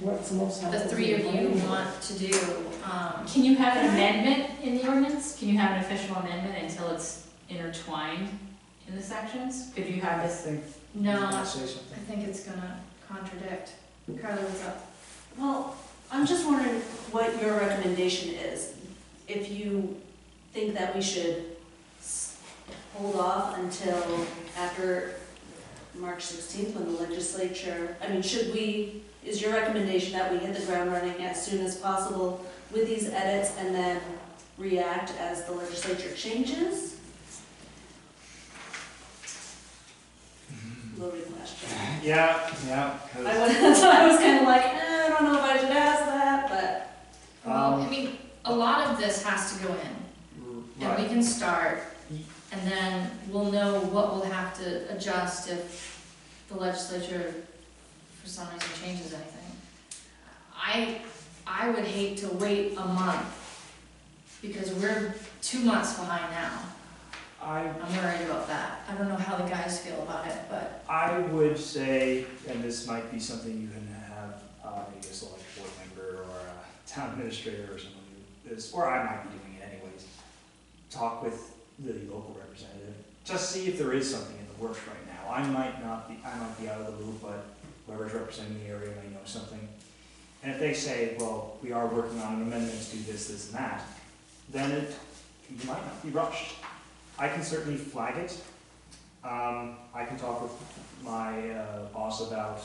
what's most the helpful. three to the of you planning board. want to do, um, Can you have an amendment in the ordinance? Can you have an official amendment until it's intertwined in the sections? Could you have this? no, I Say something. think it's gonna contradict. Carly, what's up? Well, I'm just wondering what your recommendation is. If you think that we should s- hold off until after March 16th when the legislature, I mean, should we, is your recommendation that we hit the ground running as soon as possible with these edits and then react as the legislature changes? Loaded question. Yeah, yeah, I 'cause, was, so I was kind of like, eh, I don't know if I should ask that, but Well, I Um, mean, a lot of this has to go in, and we right, can start, and then we'll know what we'll have to adjust if the legislature for some reason changes anything. I, I would hate to wait a month, because we're two months behind now. I I'm worried about that. I don't know how the guys feel about it, but I would say, and this might be something you can have, uh, maybe a select board member or a town administrator or someone who is, or I might be doing it anyways. Talk with the local representative, just see if there is something in the works right now. I might not be, I might be out of the loop, but whoever's representing the area may know something. And if they say, well, we are working on an amendment to do this, this and that, then it, you might not be rushed. I can certainly flag it. Um, I can talk with my uh, boss about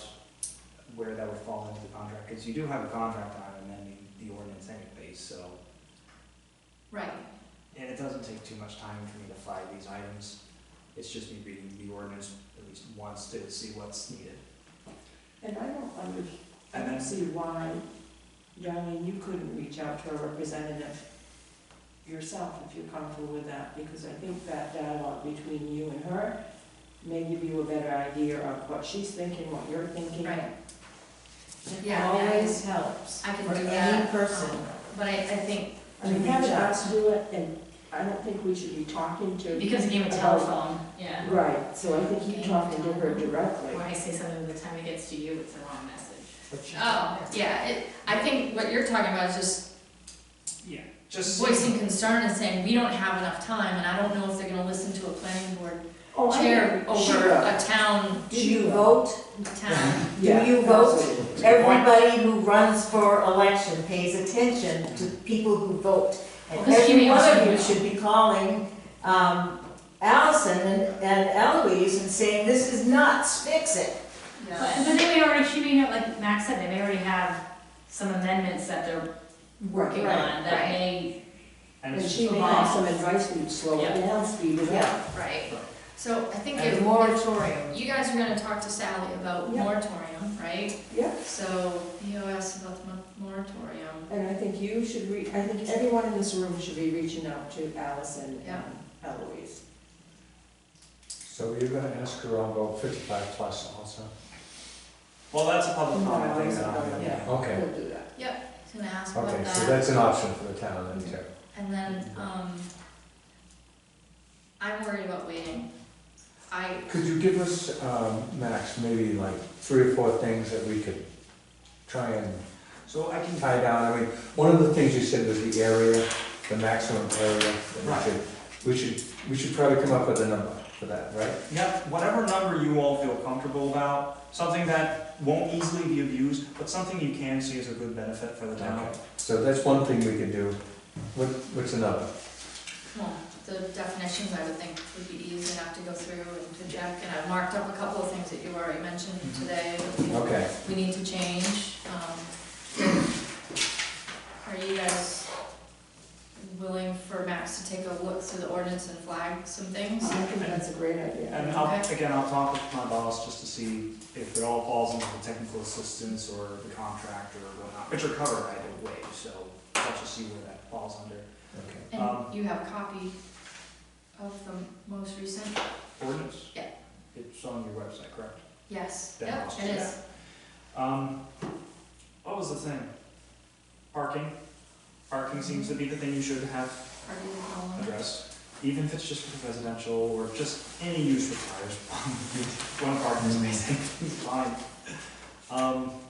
where that would fall into the contract, because you do have a contract on amending the ordinance anyways, so. right. And it doesn't take too much time for me to flag these items. It's just me reading the ordinance at least once to see what's needed. And I don't under, I And don't then, see why, Darlene, you couldn't reach out to a representative yourself if you're comfortable with that, because I think that dialogue between you and her may give you a better idea of what she's thinking, what you're thinking. Right. It Yeah, I always helps I can for do any that, person. um, But I, I think. I mean, having us do it, and I don't think we should be talking to. Because a game of telephone, yeah. Right, so I think you talking to her directly. When I say something, by the time it gets to you, it's the wrong message. but you- Oh, yeah, it, I think what you're talking about is just yeah, just. voicing concern and saying, we don't have enough time, and I don't know if they're gonna listen to a planning board Oh, I chair know. She over will. a town, Did you vote? town. Do Yeah, you vote? absolutely. It's a good point. Everybody who runs for election pays attention to people who vote. And Because she every may one also of you know. should be calling um, Allison and and Eloise and saying, this is nuts, fix it. But, but they may already, she may have, like Max said, they may already have some amendments that they're working Right, on that may, And And it's she may have some advice, we'd slow it down, speed it up. Right, so I think And if, a moratorium. you guys are gonna talk to Sally about Yeah. moratorium, right? Yeah. So, EOS about the mo- moratorium, And I think you should re, I think everyone in this room should be reaching out to Allison Yeah. and um, Eloise. So you're gonna ask her on vote fifty-five plus also? Well, that's a public No, comment thing it's that not, I'm gonna- yeah. Okay, We'll do that. Just gonna ask about okay, that. so that's an option for the town then too. And then, um, I'm worried about waiting. I, Could you give us, um, Max, maybe like three or four things that we could try and So I can, tie down? I mean, one of the things you said was the area, the maximum area. that we Right. should- We should, we should probably come up with a number for that, right? Yep, whatever number you all feel comfortable about, something that won't easily be abused, but something you can see as a good benefit for the town. Okay. So that's one thing we could do. What, what's another? well, the definitions I would think would be easy enough to go through and to check, and I've marked up a couple of things that you already mentioned Mhm. today that we- Okay, we need to change. Um, Are you guys willing for Max to take a look through the ordinance and flag some things? I think that's a great And idea. I'll, Okay. again, I'll talk with my boss just to see if it all falls into the technical assistance or the contract or whatnot, which are covered either way, so I'll just see where that falls under. okay. Um, And you have a copy of the most recent? Ordinance? Yeah. It's on your website, correct? Yes, That yep, must it be- is. Um, what was the thing? Parking. Parking seems to be the thing you should have Are you following? addressed, even if it's just for the residential or just any use requires one parking space, I think it's fine. Um,